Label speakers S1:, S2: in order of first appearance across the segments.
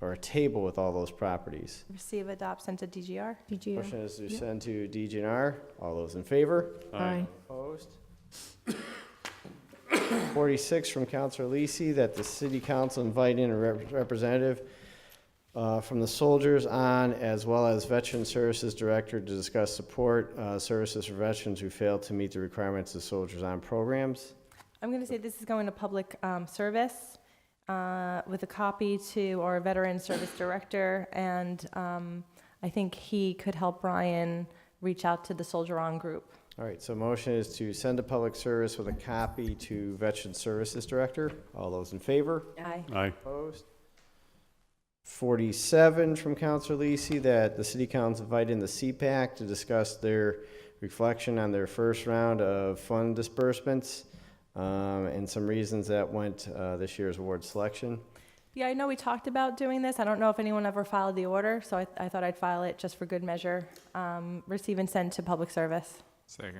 S1: or a table with all those properties.
S2: Receive, adopt, send to DGR.
S3: DGR.
S1: Motion is to send to DGNR. All those in favor?
S3: Aye.
S1: Opposed? Forty-six from Counselor Lisi, that the city council invite in a rep- representative uh, from the soldiers on, as well as Veteran Services Director to discuss support uh, services for veterans who fail to meet the requirements of soldiers on programs.
S2: I'm going to say this is going to public um, service uh, with a copy to our veteran service director, and um, I think he could help Brian reach out to the Soldier On group.
S1: All right, so motion is to send to public service with a copy to Veteran Services Director. All those in favor?
S2: Aye.
S4: Aye.
S1: Opposed? Forty-seven from Counselor Lisi, that the city council invite in the CPAC to discuss their reflection on their first round of fund disbursements, um, and some reasons that went, uh, this year's award selection.
S2: Yeah, I know we talked about doing this. I don't know if anyone ever filed the order, so I, I thought I'd file it just for good measure. Um, receive and send to public service.
S4: Second.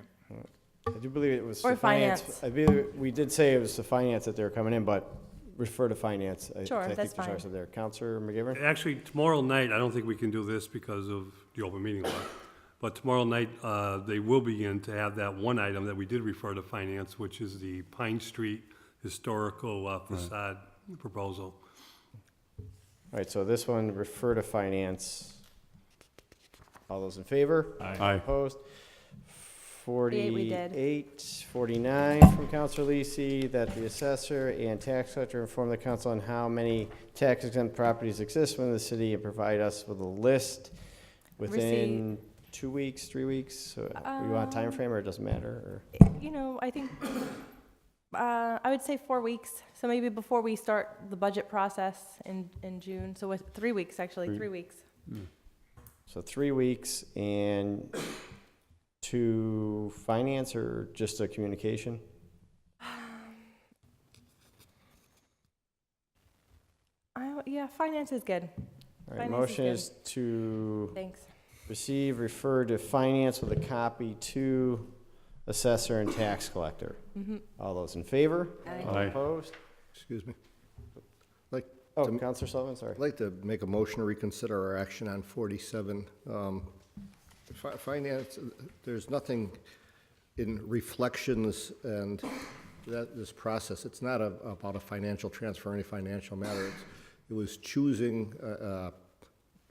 S1: I do believe it was.
S2: Or
S1: the
S2: finance.
S1: I believe, we did say it was the finance that they were coming in, but refer to finance. I- 'cause
S2: Sure,
S1: I think
S2: that's
S1: there's
S2: fine.
S1: ours There, Counselor McGivern?
S5: Actually, tomorrow night, I don't think we can do this because of the open meeting law. But tomorrow night, uh, they will begin to have that one item that we did refer to finance, which is the Pine Street historical uh, facade proposal.
S1: All right, so this one, refer to finance. All those in favor?
S4: Aye.
S1: Opposed?
S2: Forty-eight we did.
S1: 48, 49 from Counselor Lisi, that the assessor and tax collector inform the council on how many tax exempt properties exist within the city and provide us with a list within two weeks, three weeks? So, uh, You want a time
S2: Um,
S1: frame, or it doesn't matter?
S2: You know, I think uh, I would say four weeks. So maybe before we start the budget process in, in June. So with three weeks actually,
S1: Three-
S2: three weeks.
S1: or- So three weeks and to finance or just a communication?
S2: I, yeah, finance is good.
S1: All right,
S2: Finance is
S1: motion
S2: good.
S1: is to
S2: Thanks.
S1: receive, refer to finance with a copy to assessor and tax collector.
S2: Mhm.
S1: All those in favor?
S4: Aye.
S1: Opposed?
S6: Excuse me.
S1: Oh,
S6: To-
S1: Counselor Sullivan, sorry.
S6: I'd like to make a motion to reconsider our action on 47. Um, fi- Finance, there's nothing in reflections and that, this process, it's not a- about a financial transfer, or any financial matter. It's- It was choosing uh, uh,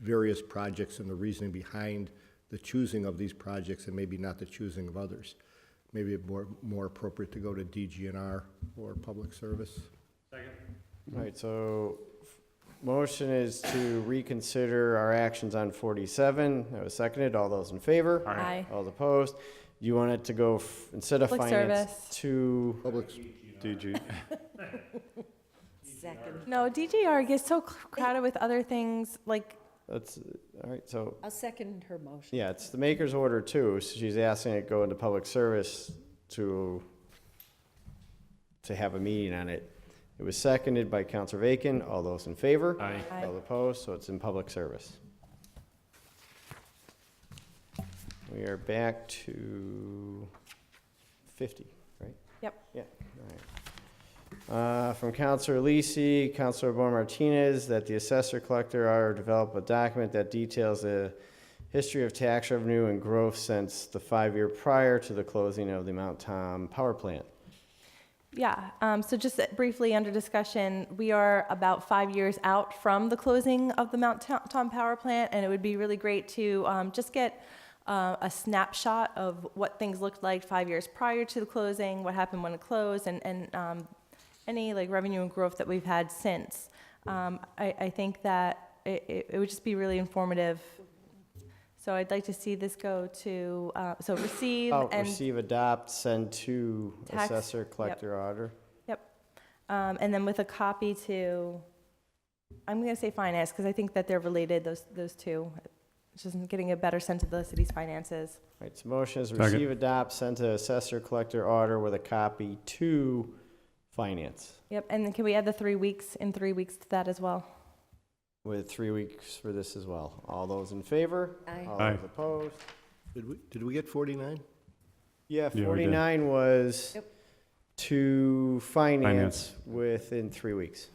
S6: various projects and the reasoning behind the choosing of these projects and maybe not the choosing of others. Maybe it more, more appropriate to go to DGNR or Public Service.
S1: All right, so f- motion is to reconsider our actions on 47. That was seconded. All those in favor?
S2: Aye.
S1: All those opposed? You want it to go, f- instead of
S2: Public
S1: finance,
S2: service.
S1: to,
S6: Public,
S4: DG.
S3: Second.
S2: No, DGR gets so cr- crowded with other things like
S1: that's, all right, so,
S3: I'll second her motion.
S1: yeah, it's the maker's order too. So she's asking it go into public service to, to have a meeting on it. It was seconded by Counselor Bacon. All those in favor?
S4: Aye.
S2: Aye.
S1: All opposed, so it's in public service. We are back to 50, right?
S2: Yep.
S1: Yeah, all right. Uh, From Counselor Lisi, Counselor Bor Martinez, that the assessor collector are develop a document that details the history of tax revenue and growth since the five year prior to the closing of the Mount Tom power plant.
S2: Yeah, um, so just briefly under discussion, we are about five years out from the closing of the Mount Tom Tom Power Plant, and it would be really great to um, just get uh, a snapshot of what things looked like five years prior to the closing, what happened when it closed, and, and um, any like revenue and growth that we've had since. Um, I, I think that it, it- it would just be really informative. So I'd like to see this go to, uh, so receive
S1: Oh,
S2: and
S1: receive, adopt, send to
S2: Tax-
S1: assessor collector auditor.
S2: Um, and then with a copy to, I'm gonna say finance, because I think that they're related, those, those two. Just getting a better sense of the city's finances.
S1: All right, so motion is
S4: Second.
S1: receive, adopt, send to assessor, collector, order with a copy to finance
S2: Yep, and then can we add the three weeks, in three weeks to that as well?
S1: with three weeks for this as well. All those in favor?
S3: Aye.
S1: All
S4: Aye.
S1: those opposed?
S6: did we, did we get 49?
S1: Yeah,
S4: did.
S1: 49 was
S3: Yep.
S1: to finance
S4: Finance.
S1: within three weeks.